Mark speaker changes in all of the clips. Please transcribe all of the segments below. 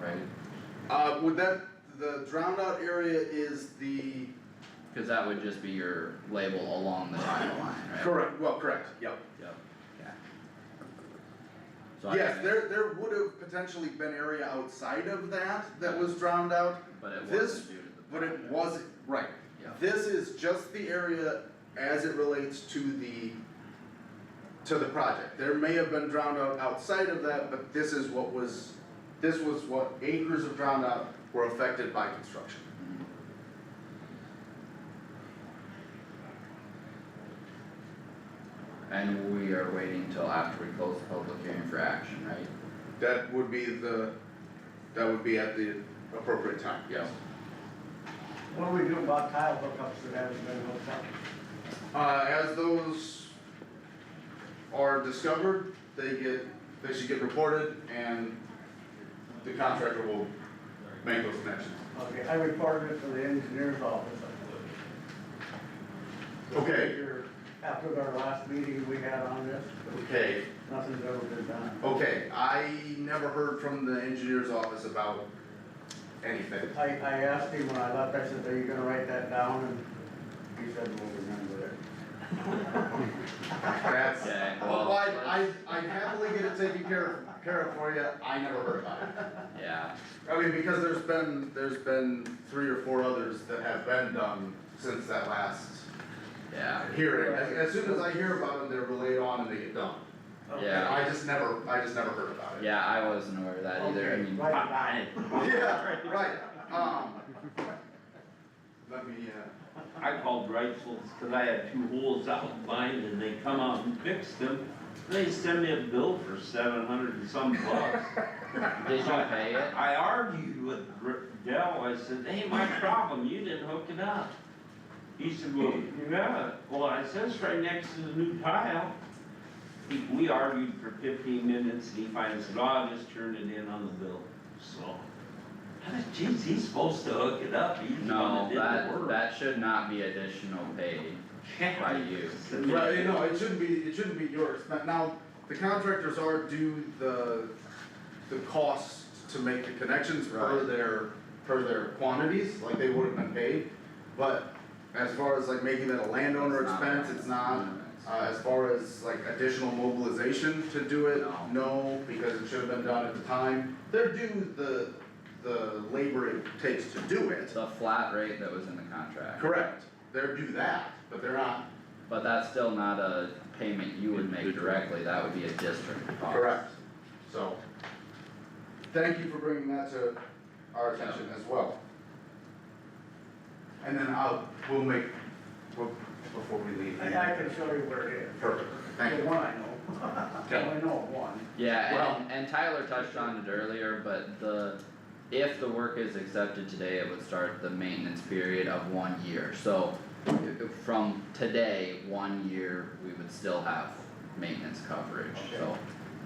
Speaker 1: right?
Speaker 2: Uh, would that, the drowned out area is the,
Speaker 1: Cause that would just be your label along the tile line, right?
Speaker 2: correct, well, correct, yep.
Speaker 1: Yep, yeah. So I-
Speaker 2: Yes, there, there would have potentially been area outside of that that was drowned out,
Speaker 1: But it
Speaker 2: this-
Speaker 1: wasn't due to the.
Speaker 2: but it
Speaker 1: project.
Speaker 2: wasn't, right.
Speaker 1: Yeah,
Speaker 2: This is just the area as it relates to the, to the project. There may have been drowned out outside of that, but this is what was, this was what acres of drowned out were affected by construction.
Speaker 1: Mhm. And we are waiting till after we close the public hearing for action, right?
Speaker 2: That would be the, that would be at the appropriate time, yes.
Speaker 3: What do we do about tile hookups that haven't been hooked up?
Speaker 2: Uh, as those are discovered, they get, they should get reported and the contractor will make those connections.
Speaker 3: Okay, I reported it to the engineer's office.
Speaker 2: Okay,
Speaker 3: After our last meeting we had on this,
Speaker 2: okay,
Speaker 3: nothing's ever been done.
Speaker 2: okay, I never heard from the engineer's office about anything.
Speaker 3: I, I asked him when I left, I said, are you gonna write that down? And he said, we'll remember it.
Speaker 2: That's,
Speaker 1: Okay, well,
Speaker 2: well, I, I, I happily get it taken care of, care of for you, I never heard about it.
Speaker 1: Yeah,
Speaker 2: I mean, because there's been, there's been three or four others that have been done since that last
Speaker 1: yeah,
Speaker 2: hearing, as, as soon as I hear about them, they're relayed on and they get done. And
Speaker 1: Yeah.
Speaker 2: I just never, I just never heard about it.
Speaker 1: yeah, I wasn't aware of that either, I
Speaker 3: Okay,
Speaker 1: mean.
Speaker 3: right.
Speaker 2: Yeah, right, um. Let me, uh,
Speaker 4: I called Reitzel's, cause I had two holes out in mine and they come out and fixed them. They sent me a bill for seven hundred and some bucks.
Speaker 1: Did you pay it?
Speaker 4: I argued with R- Dell, I said, hey, my problem, you didn't hook it up. He said, well, you got it. Well, I said, it's right next to the new tile. He- We argued for fifteen minutes and he finally said, oh, I just turned it in on the bill, so. I said, geez, he's supposed to hook it up, he's the
Speaker 1: No,
Speaker 4: one that did the
Speaker 1: that,
Speaker 4: work.
Speaker 1: that should not be additional pay by you.
Speaker 2: well, you know, it shouldn't be, it shouldn't be yours, Now- now, the contractors are due the, the cost to make the connections per
Speaker 1: Right.
Speaker 2: their, per their quantities, like they would have been paid. But as far as like making that a landowner
Speaker 1: It's not
Speaker 2: expense, it's not, Uh, as far as like additional mobilization to do it,
Speaker 1: No.
Speaker 2: no, because it should have been done at the time. They're due the, the labor it takes to do it.
Speaker 1: It's a flat rate that was in the contract,
Speaker 2: Correct, they're due that, but they're not.
Speaker 1: but that's still not a payment you would make directly, that would be a district cost.
Speaker 2: So, thank you for bringing that to our attention as well. And then I'll, we'll make, we'll- before we leave.
Speaker 3: I, I can show you where it is.
Speaker 2: Perfect, thank
Speaker 3: The
Speaker 2: you.
Speaker 3: one I know. I only know of one.
Speaker 1: Yeah,
Speaker 2: Well-
Speaker 1: and, and Tyler touched on it earlier, but the, if the work is accepted today, it would start the maintenance period of one year, so. i- i- From today, one year, we would still have maintenance coverage, so.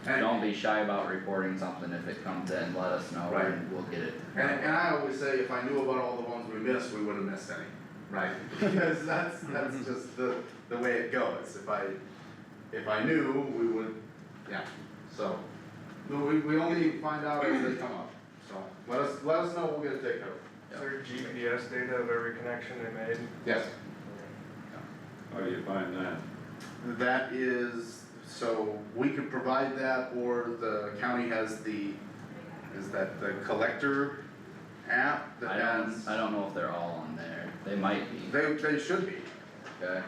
Speaker 2: And-
Speaker 1: Don't be shy about reporting something if it comes in, let us know
Speaker 2: Right.
Speaker 1: and we'll get it.
Speaker 2: And, and I always say, if I knew about all the ones we missed, we wouldn't have missed any, right? Because that's, that's just the, the way it goes, if I, if I knew, we would, yeah, so. no, We, we only find out as they come up, so, let us, let us know, we'll get it taken care of.
Speaker 5: Is there GPS data of every connection they made?
Speaker 2: Yes.
Speaker 4: How do you find that?
Speaker 2: That is, so we could provide that, or the county has the, is that the collector app that
Speaker 1: I
Speaker 2: has?
Speaker 1: don't, I don't know if they're all on there, they might be,
Speaker 2: They, they should be.
Speaker 1: okay?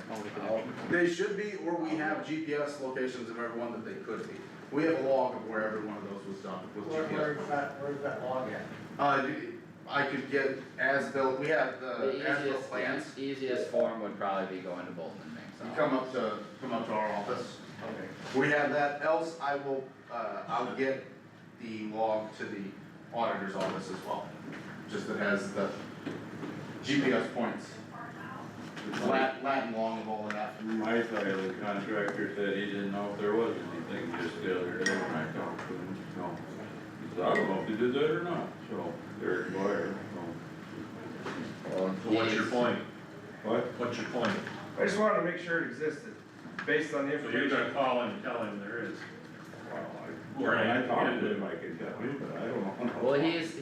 Speaker 2: They should be, or we have GPS locations of everyone that they could be. We have a log of where every one of those was done with
Speaker 3: Where,
Speaker 2: GPS.
Speaker 3: where's that, where's that log at?
Speaker 2: Uh, you- I could get as-built, we have
Speaker 1: The
Speaker 2: Uh, the as-built
Speaker 1: easiest,
Speaker 2: plans.
Speaker 1: the easiest form would probably be going to Bolton and Mixon.
Speaker 2: You come up to, come up to our office.
Speaker 3: Okay.
Speaker 2: We have that, else I will, uh, I'll get the log to the auditor's office as well. Just that has the GPS points. Latin, Latin log of all of that.
Speaker 6: My side of the contractor said he didn't know if there was anything just the other day when I talked to him, so. He said, I don't know if they did that or not, so they're inquired, so.
Speaker 1: So what's your point?
Speaker 6: What?
Speaker 7: What's your point?
Speaker 5: I just wanted to make sure it existed, based on the
Speaker 7: So you're gonna
Speaker 5: information.
Speaker 7: call and tell him there is.
Speaker 6: Well, I, when I talked to him, I could tell you, but I don't know.
Speaker 1: Well, he's,